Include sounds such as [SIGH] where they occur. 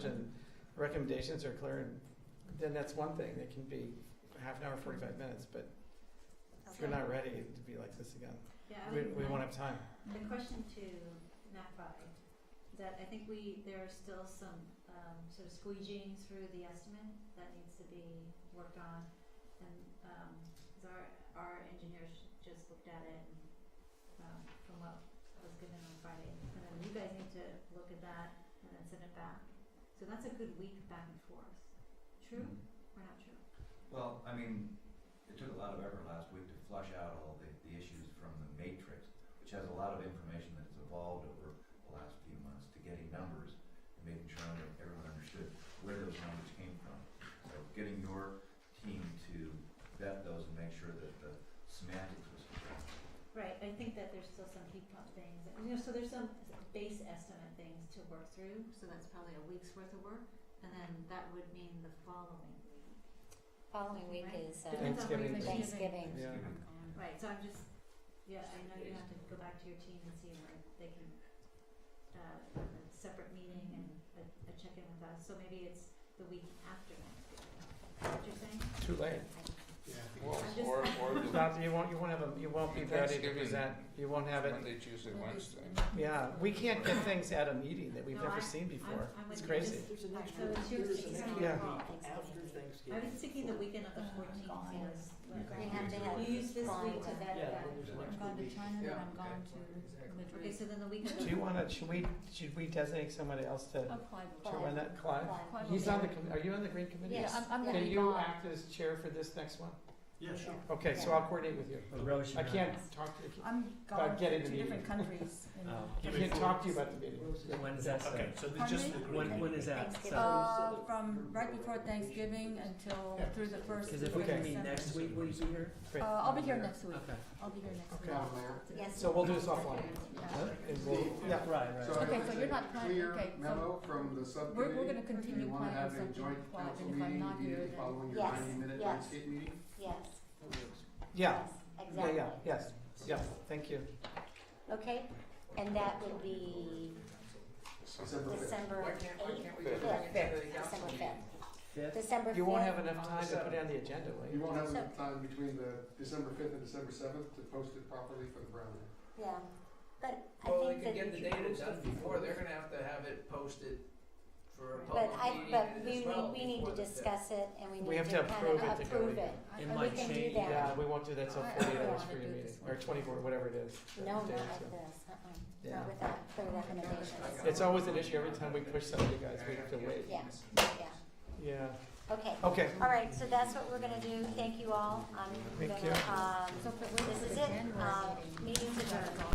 and recommendations are clear, and then that's one thing, it can be half an hour, forty-five minutes, but if you're not ready, it'd be like this again. Yeah, I We, would- we won't have time. The question to NAPI, is that I think we, there are still some um sort of squeegeeing through the estimate that needs to be worked on. And um 'cause our our engineers just looked at it and um from what was given on Friday. And then you guys need to look at that and then send it back. So that's a good week back and forth. True or not true? Well, I mean, it took a lot of effort last week to flush out all the, the issues from the matrix, which has a lot of information that's evolved over the last few months to getting numbers and making sure that everyone understood where those numbers came from. So getting your team to vet those and make sure that the semantics was correct. Right, I think that there's still some heat pump things, and, you know, so there's some base estimate things to work through, so that's probably a week's worth of work, and then that would mean the following week. Following week Right. is uh, Depends on where Thanksgiving. you're Thanksgiving. Yeah. Right, so I'm just, yeah, I know you have to go back to your team and see where they can, uh, have a separate meeting and a, a check-in with us, so maybe it's the week after next week. What you're saying? Too late. I'm just- Or, or It's the not- you won't, you won't have, a- you won't be ready to Thanksgiving. present, you won't have it, Monday, Tuesday, Wednesday. yeah, we can't get things at a meeting that we've No, never I- seen before. I'm- I'm It's with you. crazy. Just- There's an Right, extra, so it's your- there's it's an your extra Yeah. week after I Thanksgiving. was thinking the weekend of the Oh, fourteenth God. was, They have to like, have you use this Friday. week to vet Yeah, that. there's an I'm extra week. and then Yeah, I'm going Okay, so then the weekend. Do you wanna, should we, should we designate somebody else to, to run that? Clive? Clive He's on the, O'Leary. com- are you on the green committee? Yeah, I'm, I'm gonna Can be you gone. act as chair for this next one? Yeah, sure. Okay, so Yeah. I'll coordinate with you. I can't talk to you. I'm About getting the meeting. [LAUGHS] countries. in- Oh. uh, I can't talk to you about the meeting. When is that? Okay, so the, Pardon just, me? when, when is that? Thanksgiving. So, Uh, from right before Thanksgiving until Yeah. through the first. cause if we week of can meet December. next week, will you be here? Great. Uh, I'll be here next week. Okay. I'll be here next Okay. week. Yes. So we'll do this offline. Yeah. And we'll, yeah, Right, right. So I Okay, think so it's you're a not planning- clear okay, so memo from We're, the we're subcommittee, gonna if you continue wanna planning have a something joint live, council and if I'm meeting not here, immediately then. following your Yes, ninety minute yes. Lionsgate meeting. Yes, yeah, yeah, exactly. yeah, yes, yeah, thank you. Okay, and that would be December fifth. December fifth. Fifth? December You won't have enough time to put it on the agenda, You will you? won't have So- enough time between the December fifth and December seventh to post it properly for the Brown Act. Yeah, but I Well, they think could get that, the data done before, they're gonna have to have it posted for a public but I, meeting but we, as need- well we need to before the fifth. discuss it and we We need have to to kind approve it of to go approve to- it. It And we might can do change. that. Yeah, we won't do that till I- I forty-eight don't hours for wanna your do meeting, this or one. twenty-four, whatever it is. No, not Days, like yeah. this, uh-uh, Yeah. not without clear recommendations, It's always an issue, every time we push somebody, guys, we have to wait. yeah, yeah, Yeah, okay. okay. All right, so that's what we're gonna do, thank you all, I'm Thank gonna, you. Uh, um, this is it, um, meeting's adjourned.